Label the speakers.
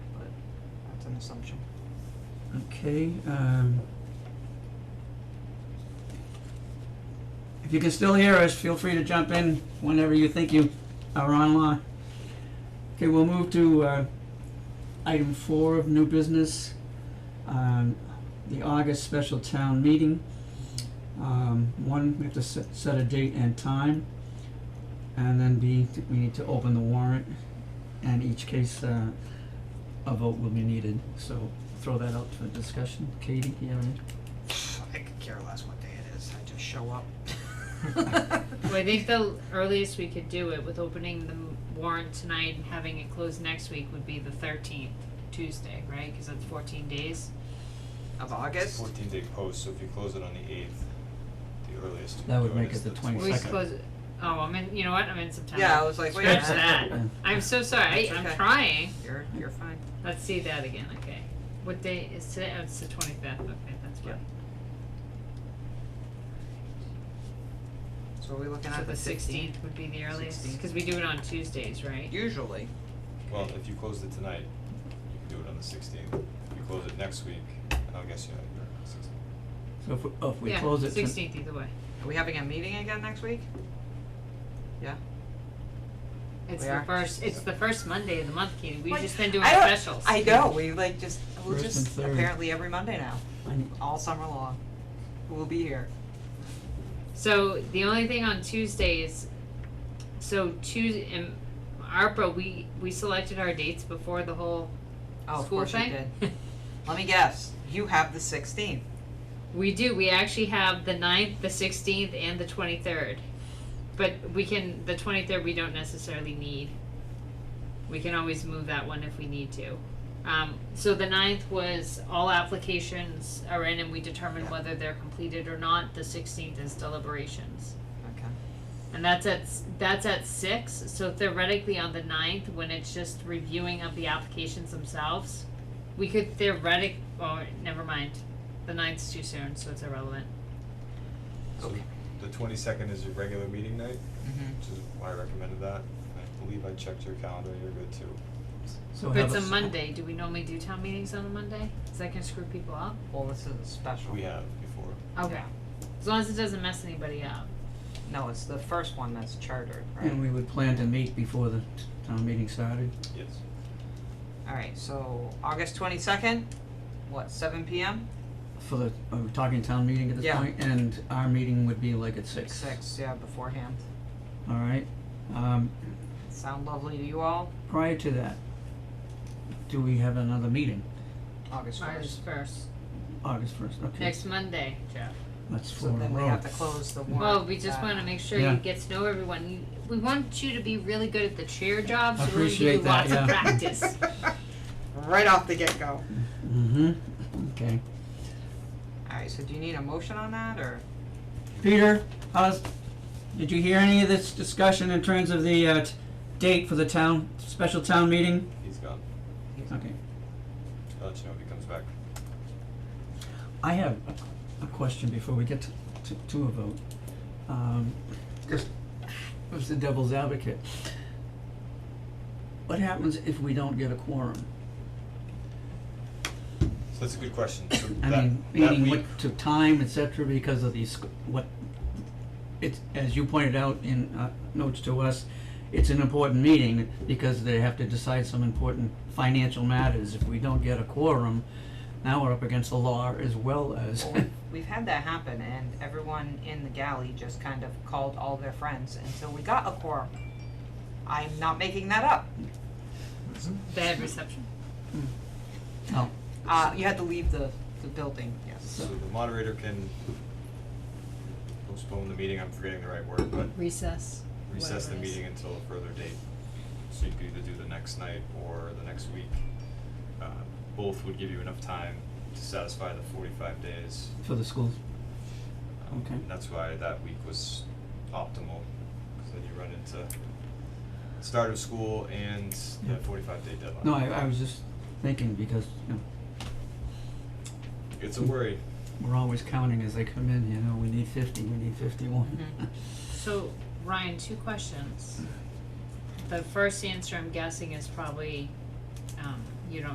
Speaker 1: assumption.
Speaker 2: Okay, um. If you can still hear us, feel free to jump in whenever you think you are online. Okay, we'll move to, uh, item four of new business, um, the August special town meeting. Um, one, we have to set, set a date and time. And then B, we need to open the warrant, and each case, uh, a vote will be needed, so throw that out for discussion. Katie, do you have any?
Speaker 1: I could care less what day it is, I just show up.
Speaker 3: Well, I think the earliest we could do it with opening the warrant tonight and having it closed next week would be the thirteenth, Tuesday, right? Cause that's fourteen days.
Speaker 1: Of August,
Speaker 4: Fourteen day post, so if you close it on the eighth, the earliest. you
Speaker 2: That
Speaker 4: can
Speaker 2: would
Speaker 4: do it
Speaker 2: make
Speaker 4: is
Speaker 2: it the
Speaker 3: We just
Speaker 2: 22nd.
Speaker 3: close it, oh, I'm in, you know what, I'm in September.
Speaker 1: yeah, I was like, wait a
Speaker 3: Scratch
Speaker 1: minute.
Speaker 3: that.
Speaker 2: Yeah.
Speaker 3: I'm so sorry, I,
Speaker 1: That's
Speaker 3: I'm
Speaker 1: okay.
Speaker 3: trying.
Speaker 1: You're, you're fine.
Speaker 3: Let's see that again, okay. What day is today? Oh, it's the twenty-fifth, okay, that's
Speaker 1: Yeah.
Speaker 3: good.
Speaker 1: So are we looking
Speaker 3: So
Speaker 1: at
Speaker 3: the
Speaker 1: the sixteenth?
Speaker 3: sixteenth would be the earliest,
Speaker 1: 16th.
Speaker 3: cause we do it on Tuesdays, right?
Speaker 1: Usually,
Speaker 4: Well, if you closed it tonight, you can do it on the sixteenth. If you close it next week, and I'll guess you have your sixteenth.
Speaker 2: So if we, oh, if we close it. to-
Speaker 3: Yeah, sixteenth either way.
Speaker 1: are we having a meeting again next week?
Speaker 3: It's
Speaker 1: We
Speaker 3: the
Speaker 1: are.
Speaker 3: first, it's the first Monday of the month, Katie, we've
Speaker 1: Like,
Speaker 3: just been doing
Speaker 1: I don't-
Speaker 3: specials.
Speaker 1: I know, we like just, we'll
Speaker 2: First
Speaker 1: just,
Speaker 2: and third.
Speaker 1: apparently every Monday now,
Speaker 2: I need-
Speaker 1: all summer long, we'll be here.
Speaker 3: So the only thing on Tuesday is, so Tuesday, and ARPA, we, we selected our dates before the whole
Speaker 1: Oh, of
Speaker 3: school
Speaker 1: course you
Speaker 3: thing.
Speaker 1: did. Let me guess, you have the sixteenth,
Speaker 3: We do, we actually have the ninth, the sixteenth, and the twenty-third. But we can, the twenty-third, we don't necessarily need. We can always move that one if we need to. Um, so the ninth was all applications are in and we determine
Speaker 1: Yeah.
Speaker 3: whether they're completed or not, the sixteenth is deliberations.
Speaker 1: okay.
Speaker 3: And that's at s- that's at six. So theoretically, on the 9th, when it's just reviewing of the applications themselves, we could theoretic. Oh, never mind. The 9th's too soon, so it's irrelevant.
Speaker 4: So
Speaker 1: Okay.
Speaker 4: the twenty-second is your regular meeting night,
Speaker 1: Mhm.
Speaker 4: which is why I recommended that. And I believe I checked your calendar, you're good too.
Speaker 2: So
Speaker 3: But
Speaker 2: have
Speaker 3: it's a
Speaker 2: s-
Speaker 3: Monday. Do we normally do town meetings on a Monday? Is that gonna screw people up?
Speaker 1: Well, this is a special.
Speaker 4: We have before.
Speaker 3: Okay.
Speaker 1: Yeah.
Speaker 3: As long as it doesn't mess anybody up.
Speaker 1: No, it's the first one that's chartered, right?
Speaker 2: And we would plan to meet before the t- town meeting started.
Speaker 4: Yes.
Speaker 1: Alright, so August twenty-second, what, seven P M?
Speaker 2: For the, are we talking town meeting at this
Speaker 1: Yeah.
Speaker 2: point? And our meeting would be like at six.
Speaker 1: Six, yeah, beforehand.
Speaker 2: All right. Um,
Speaker 1: Sound lovely to you all?
Speaker 2: prior to that, do we have another meeting?
Speaker 1: August first.
Speaker 3: August first.
Speaker 2: August first, okay.
Speaker 3: Next Monday, Jeff.
Speaker 2: That's
Speaker 1: So
Speaker 2: four in a
Speaker 1: then we
Speaker 2: row.
Speaker 1: have to close the warrant. Uh,
Speaker 3: Well, we just
Speaker 1: that-
Speaker 3: wanna make sure
Speaker 2: Yeah.
Speaker 3: you get to know everyone. You, we want you to be really good at the chair job, so we're gonna give you
Speaker 2: Appreciate that,
Speaker 3: lots
Speaker 2: yeah.
Speaker 3: of practice.
Speaker 1: Right off the get-go.
Speaker 2: Mm-hmm, okay.
Speaker 1: Alright, so do you need a motion on that, or?
Speaker 2: Peter, how's, did you hear any of this discussion in terms of the, uh, t- date for the town, special town meeting?
Speaker 4: He's gone.
Speaker 2: Okay.
Speaker 4: I'll let you know if he comes back.
Speaker 2: I have a, a question before we get to, to, to a vote. Um, just, was the devil's advocate. What happens if we don't get a quorum?
Speaker 4: So that's a good question. So
Speaker 2: I
Speaker 4: that,
Speaker 2: mean,
Speaker 4: that
Speaker 2: meaning
Speaker 4: week,
Speaker 2: what to time, et cetera, because of these, what, it's, as you pointed out in, uh, notes to us, it's an important meeting because they have to decide some important financial matters. If we don't get a quorum, now we're up against the law as well as,
Speaker 1: Well, we've- We've had that happen, and everyone in the galley just kind of called all their friends until we got a quorum. I'm not making that up.
Speaker 3: Bad reception.
Speaker 2: oh,
Speaker 1: Uh, you had to leave the, the building, yes.
Speaker 4: so the moderator can postpone the meeting, I'm forgetting the right word, but
Speaker 3: Recess.
Speaker 4: recess the
Speaker 3: whatever it is.
Speaker 4: meeting until a further date. So you could either do the next night or the next week. Uh, Both would give you enough time to satisfy the forty-five days.
Speaker 2: for the schools.
Speaker 4: Um,
Speaker 2: Okay.
Speaker 4: and That's why that week was optimal, because then you run into start of school and
Speaker 2: Yeah.
Speaker 4: the forty-five day deadline.
Speaker 2: No, I, I was just thinking because, you know,
Speaker 4: It's a worry.
Speaker 2: we're always counting as they come in, you know, we need fifty, we need fifty-one.
Speaker 1: Mhm.
Speaker 3: So, Ryan, two questions. The first answer I'm guessing is probably, um,